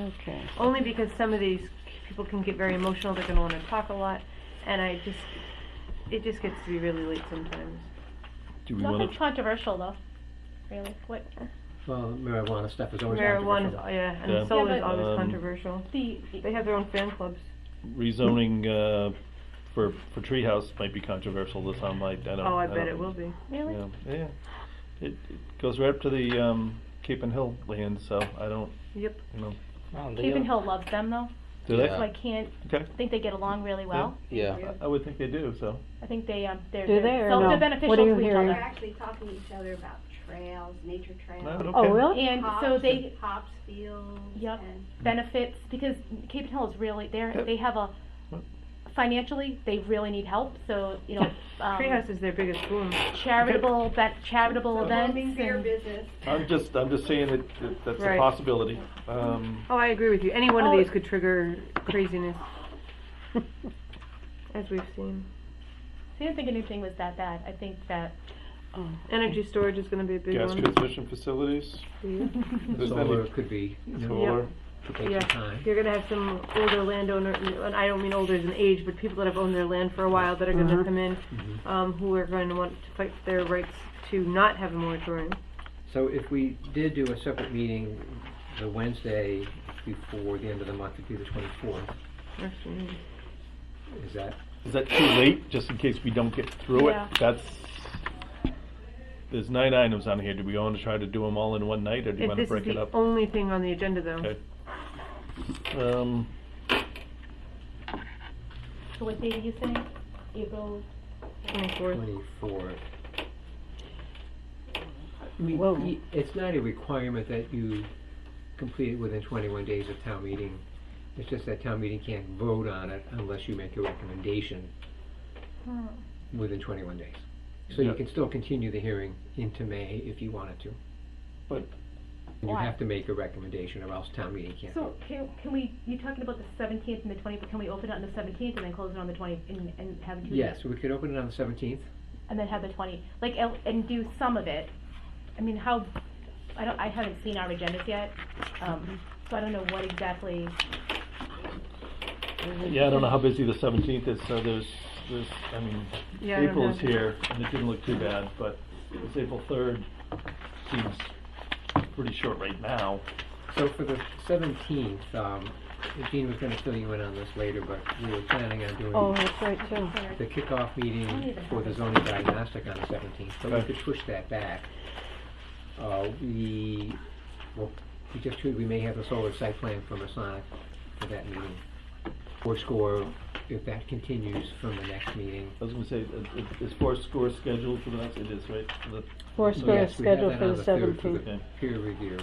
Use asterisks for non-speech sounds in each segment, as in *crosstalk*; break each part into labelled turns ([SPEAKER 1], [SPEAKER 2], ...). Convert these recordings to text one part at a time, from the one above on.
[SPEAKER 1] Okay.
[SPEAKER 2] only because some of these people can get very emotional. They're going to want to talk a lot, and I just it just gets to be really late sometimes.
[SPEAKER 3] Do we want
[SPEAKER 4] Nothing
[SPEAKER 3] to,
[SPEAKER 4] controversial though, really. What,
[SPEAKER 5] Well, marijuana stuff is always
[SPEAKER 2] Marijuana, is,
[SPEAKER 5] controversial.
[SPEAKER 2] yeah,
[SPEAKER 3] Yeah.
[SPEAKER 2] and solar is
[SPEAKER 4] Yeah, but-
[SPEAKER 2] always
[SPEAKER 3] Um,
[SPEAKER 2] controversial.
[SPEAKER 4] the,
[SPEAKER 2] They have their own fan clubs.
[SPEAKER 3] rezoning, uh, for, for Treehouse might be controversial to some, I, I don't.
[SPEAKER 2] Oh, I
[SPEAKER 3] don't-
[SPEAKER 2] bet it will be.
[SPEAKER 4] really?
[SPEAKER 3] Yeah, yeah. It, it goes right up to the, um, Cape and Hill land, so I don't,
[SPEAKER 2] Yep.
[SPEAKER 3] you know,
[SPEAKER 5] Well, the
[SPEAKER 4] Cape and
[SPEAKER 5] other-
[SPEAKER 4] Hill loves them though,
[SPEAKER 3] do they?
[SPEAKER 4] so I can't,
[SPEAKER 3] Okay,
[SPEAKER 4] I think they get along really well.
[SPEAKER 5] Yeah,
[SPEAKER 3] I would think they do, so.
[SPEAKER 4] I think they, um, they're,
[SPEAKER 1] Do they
[SPEAKER 4] they're
[SPEAKER 1] or
[SPEAKER 4] so-
[SPEAKER 1] no?
[SPEAKER 4] they're
[SPEAKER 1] What
[SPEAKER 4] beneficial
[SPEAKER 1] are you
[SPEAKER 4] to each
[SPEAKER 1] hearing?
[SPEAKER 6] They're
[SPEAKER 4] other.
[SPEAKER 6] actually talking to each other about trails, nature
[SPEAKER 3] No,
[SPEAKER 6] trails.
[SPEAKER 3] okay.
[SPEAKER 1] Oh, really?
[SPEAKER 4] And so
[SPEAKER 6] hops-
[SPEAKER 4] they
[SPEAKER 6] Hops fields.
[SPEAKER 4] Yep.
[SPEAKER 6] and-
[SPEAKER 4] benefits, because Cape and Hill is really, they're,
[SPEAKER 3] Yep.
[SPEAKER 4] they have a,
[SPEAKER 3] Yep.
[SPEAKER 4] financially, they really need help, so, you
[SPEAKER 1] *laughs*
[SPEAKER 4] know, um,
[SPEAKER 2] Treehouse is their biggest boom.
[SPEAKER 4] charitable, ben- charitable events
[SPEAKER 6] Being fair
[SPEAKER 4] and.
[SPEAKER 6] business.
[SPEAKER 3] I'm just, I'm just saying that, that that's a
[SPEAKER 2] Right.
[SPEAKER 3] possibility. Um,
[SPEAKER 2] Oh, I agree with you. Any one
[SPEAKER 4] Oh.
[SPEAKER 2] of these could trigger
[SPEAKER 4] *laughs*
[SPEAKER 2] craziness, as we've seen.
[SPEAKER 4] I didn't think anything was that bad. I think that
[SPEAKER 1] Oh.
[SPEAKER 2] Energy storage is going to be a big
[SPEAKER 3] gas
[SPEAKER 2] one.
[SPEAKER 3] transmission
[SPEAKER 2] *laughs*
[SPEAKER 3] facilities, if there's
[SPEAKER 5] solar
[SPEAKER 3] any,
[SPEAKER 5] could be, you know,
[SPEAKER 3] solar.
[SPEAKER 5] could take
[SPEAKER 2] Yeah.
[SPEAKER 5] some time.
[SPEAKER 2] You're gonna have some older landowner, and I don't mean older as in age, but people that have owned their land for a while that are gonna
[SPEAKER 1] Mhm.
[SPEAKER 2] come in, um, who are going to want to fight for their rights to not have a moratorium.
[SPEAKER 5] So if we did do a separate meeting the Wednesday before the end of the month, it'd be the twenty-fourth,
[SPEAKER 2] Actually,
[SPEAKER 5] is that?
[SPEAKER 3] Is that too late, just in case we don't get through it?
[SPEAKER 4] Yeah.
[SPEAKER 3] That's, there's nine items on here. Do we want to try to do them all in one night, or do you
[SPEAKER 2] If
[SPEAKER 3] want to
[SPEAKER 2] this is
[SPEAKER 3] break it
[SPEAKER 2] the
[SPEAKER 3] up?
[SPEAKER 2] only thing on the agenda though.
[SPEAKER 3] Okay. Um,
[SPEAKER 4] so what date are you saying? April.
[SPEAKER 2] 24th.
[SPEAKER 5] Twenty-four. I mean,
[SPEAKER 1] Well-
[SPEAKER 5] y- it's not a requirement that you complete it within twenty-one days of town meeting. It's just that town meeting can't vote on it unless you make a recommendation
[SPEAKER 4] Hmm.
[SPEAKER 5] within twenty-one days. So you
[SPEAKER 3] Yeah.
[SPEAKER 5] can still continue the hearing into May if you wanted to.
[SPEAKER 3] But-
[SPEAKER 5] And You
[SPEAKER 4] Why?
[SPEAKER 5] have to make a recommendation or else town meeting can't
[SPEAKER 4] So can, can we? You're talking about the 17th and the 20th, but can we open it on the 17th and then close it on the 20th and, and have it two
[SPEAKER 5] Yes, we could open it on the seventeenth.
[SPEAKER 4] and then have the 20 like el- and do some of it. I mean, how? I don't. I haven't seen our agendas yet, um, so I don't know what exactly.
[SPEAKER 3] yeah, I don't know how busy the seventeenth is, so there's, there's, I mean,
[SPEAKER 2] Yeah, I don't
[SPEAKER 3] April is
[SPEAKER 2] know.
[SPEAKER 3] here, and it didn't look too bad, but this April third seems pretty short right now.
[SPEAKER 5] So for the seventeenth, um, Jean was gonna fill you in on this later, but we were planning on
[SPEAKER 1] Oh,
[SPEAKER 5] doing
[SPEAKER 1] that's right too.
[SPEAKER 5] the kickoff meeting for the zoning diagnostic on the seventeenth, but we
[SPEAKER 3] Okay.
[SPEAKER 5] could push that back. Uh, we, well, we just heard we may have a solar site plan for Masonic for that meeting. Or score, if that continues from the next meeting.
[SPEAKER 3] I was gonna say, is- is- is four score scheduled for the next, it is, right? The-
[SPEAKER 1] Four
[SPEAKER 5] So
[SPEAKER 1] square
[SPEAKER 5] yes, we have
[SPEAKER 1] scheduled
[SPEAKER 5] that
[SPEAKER 1] for
[SPEAKER 5] on
[SPEAKER 1] the
[SPEAKER 5] third for the
[SPEAKER 1] seventeenth.
[SPEAKER 3] Okay.
[SPEAKER 5] Peer review.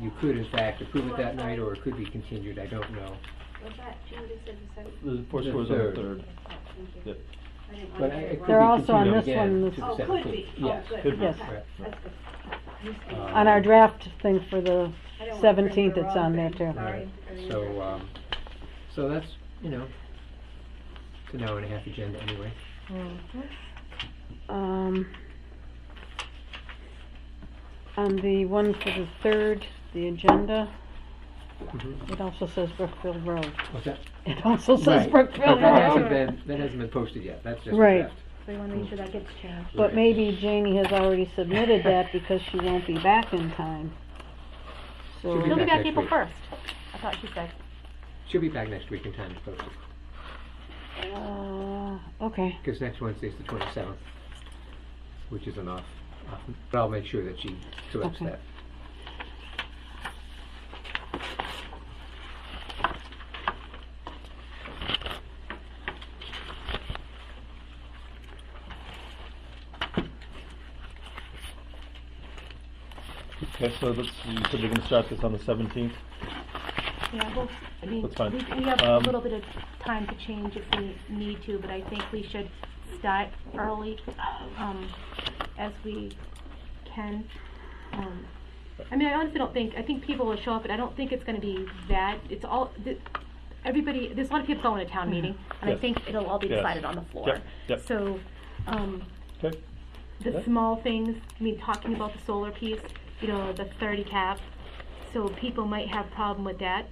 [SPEAKER 5] You could in fact approve it that night, or it could be continued, I don't know.
[SPEAKER 6] Was that, June just said the seventh?
[SPEAKER 3] The four
[SPEAKER 5] The
[SPEAKER 3] scores on the
[SPEAKER 5] third.
[SPEAKER 3] third.
[SPEAKER 6] Thank
[SPEAKER 3] Yep.
[SPEAKER 6] you. I didn't want
[SPEAKER 5] But
[SPEAKER 6] to
[SPEAKER 5] I-
[SPEAKER 6] get
[SPEAKER 5] it
[SPEAKER 6] it
[SPEAKER 5] could
[SPEAKER 1] They're
[SPEAKER 5] be
[SPEAKER 6] wrong.
[SPEAKER 1] also on
[SPEAKER 5] continued
[SPEAKER 1] this
[SPEAKER 5] again
[SPEAKER 1] one, this-
[SPEAKER 5] to the
[SPEAKER 6] Oh, could
[SPEAKER 5] 17th.
[SPEAKER 6] be, oh,
[SPEAKER 5] Yes.
[SPEAKER 6] good,
[SPEAKER 3] Could be.
[SPEAKER 6] okay.
[SPEAKER 5] Right.
[SPEAKER 6] That's good. You said-
[SPEAKER 5] Uh,
[SPEAKER 1] On our draft thing for the
[SPEAKER 6] I don't wanna bring
[SPEAKER 1] 17th,
[SPEAKER 6] the
[SPEAKER 1] it's
[SPEAKER 6] wrong
[SPEAKER 1] on there
[SPEAKER 6] thing.
[SPEAKER 1] too.
[SPEAKER 6] Sorry. I didn't
[SPEAKER 5] So,
[SPEAKER 6] know.
[SPEAKER 5] um, so that's, you know, it's an hour and a half agenda anyway.
[SPEAKER 1] Um, on the one for the third, the agenda,
[SPEAKER 5] Mhm.
[SPEAKER 1] it also says Brookfield Road.
[SPEAKER 5] What's that?
[SPEAKER 1] It also says
[SPEAKER 5] Right. But
[SPEAKER 1] Brookfield
[SPEAKER 5] That
[SPEAKER 1] Road.
[SPEAKER 5] hasn't been, that hasn't been posted yet, that's just a
[SPEAKER 1] Right.
[SPEAKER 5] draft.
[SPEAKER 4] So we want to make sure that gets changed.
[SPEAKER 1] But maybe Janie has already submitted that because she won't be back in time. So,
[SPEAKER 5] She'll be
[SPEAKER 4] She'll be
[SPEAKER 5] back
[SPEAKER 4] back
[SPEAKER 5] next
[SPEAKER 4] April
[SPEAKER 5] week.
[SPEAKER 4] 1st. I thought she said.
[SPEAKER 5] She'll be back next week in time to post it,
[SPEAKER 1] uh, okay,
[SPEAKER 5] because next Wednesday's the twenty-seventh, which is an off, off, but I'll make sure that she corrects
[SPEAKER 1] Okay.
[SPEAKER 5] that.
[SPEAKER 3] Okay, so that's, you said you're gonna start this on the seventeenth?
[SPEAKER 4] Yeah, well, I mean,
[SPEAKER 3] That's fine.
[SPEAKER 4] we, we have a
[SPEAKER 3] Um,
[SPEAKER 4] little bit of time to change if we need to, but I think we should start early, um, as we can. Um, I mean, I honestly don't think, I think people will show up, but I don't think it's gonna be that, it's all, th- everybody, there's a lot of people going to town
[SPEAKER 3] Mm-hmm.
[SPEAKER 4] meeting, and I
[SPEAKER 3] Yes.
[SPEAKER 4] think it'll all be
[SPEAKER 3] Yes.
[SPEAKER 4] decided on the floor.
[SPEAKER 3] Yep, yep.
[SPEAKER 4] So, um,
[SPEAKER 3] Okay,
[SPEAKER 4] the
[SPEAKER 3] Yeah.
[SPEAKER 4] small things, I mean, talking about the solar piece, you know, the thirty cap, so people might have problem with that.